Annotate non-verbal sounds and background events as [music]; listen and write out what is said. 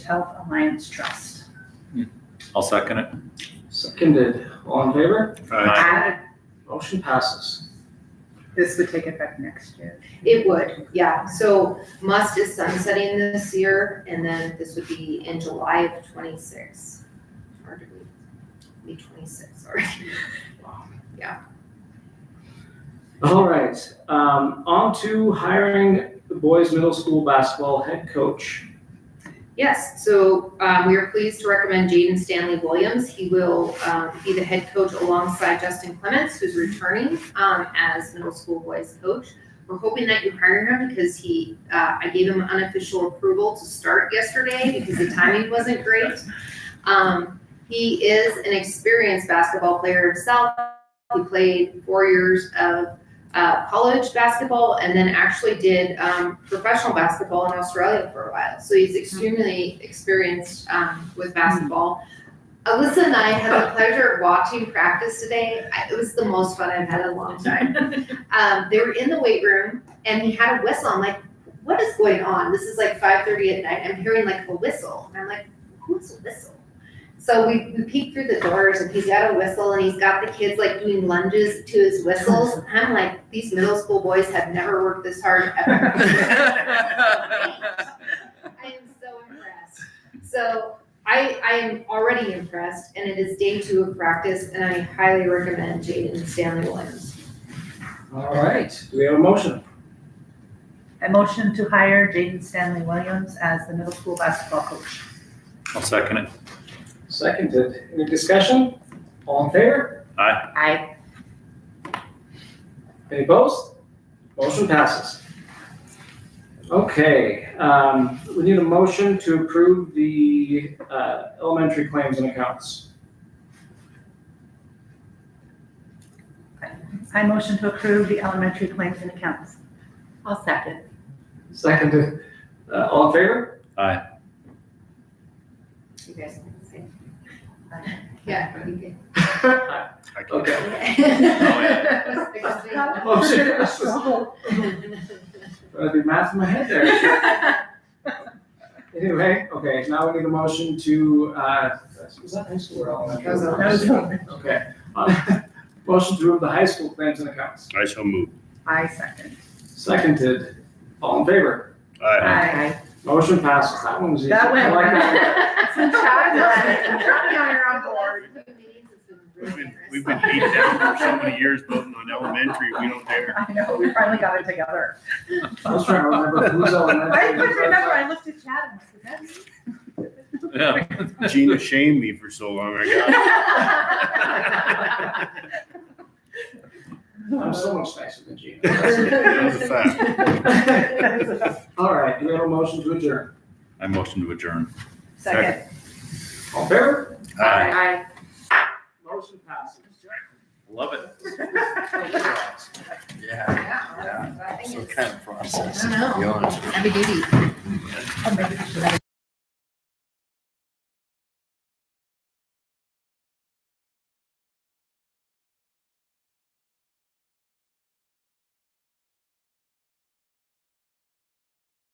Health Alliance Trust. I'll second it. Seconded, all in favor? Aye. Motion passes. This would take effect next year. It would, yeah, so must is sunsetting this year, and then this would be in July of twenty-six. Or do we, be twenty-six, sorry. All right, um, on to hiring the boys' middle school basketball head coach. Yes, so um, we are pleased to recommend Jaden Stanley Williams. He will um, be the head coach alongside Justin Clements, who's returning um, as middle school boys coach. We're hoping that you hire him because he, uh, I gave him unofficial approval to start yesterday because the timing wasn't great. Um, He is an experienced basketball player himself. He played four years of uh, college basketball and then actually did um, professional basketball in Australia for a while. So he's extremely experienced um, with basketball. Alyssa and I had the pleasure of watching practice today. I, it was the most fun I've had in a long time. Um, they were in the weight room and he had a whistle. I'm like, what is going on? This is like 5:30 at night. I'm hearing like a whistle, and I'm like, who's a whistle? So we, we peek through the doors and he's got a whistle and he's got the kids like doing lunges to his whistles. I'm like, these middle school boys have never worked this hard [laughs] [laughs] ever. I am so impressed. So I, I am already impressed, and it is day two of practice, and I highly recommend Jaden Stanley Williams. All right, do we have a motion? I motion to hire Jaden Stanley Williams as the middle school basketball coach. I'll second it. Seconded, any discussion? All in favor? I, Any opposed? Motion passes. Okay, um, we need a motion to approve the, uh, elementary claims and accounts. I motion to approve the elementary claims and accounts. I'll [laughs] second. Seconded, uh, all in favor? Aye. You guys can say. uh, Yeah, you can. I can- Okay, Motion [laughs] passes. Trouble. I did math in my head there. [laughs] Anyway, okay, now we need a motion to, uh, was that high school or elementary? That was elementary. Okay. Uh, [laughs] Motion to approve the high school claims and accounts. I shall move. I second. Seconded, all in favor? Aye. I. Motion passes, that one was easy. That went I like that Some one. chocolate. Try now you're on board. We've been, we've been beat down for so many years voting on elementary, we don't dare. I know, we finally got it [laughs] together. I was trying to remember who's elementary. I couldn't remember, I looked at Chad and I said, Yeah. Gina shamed me for so long, [laughs] I [laughs] I'm so much nicer than Gina. That was a fact. All right, do we have a motion to adjourn? I motion to adjourn. Second. All in favor? Aye. Motion passes. Love it. Yeah, Yeah, I think some it's- kind of process. I don't know. Be honest. Heavy duty. I'll make it to that.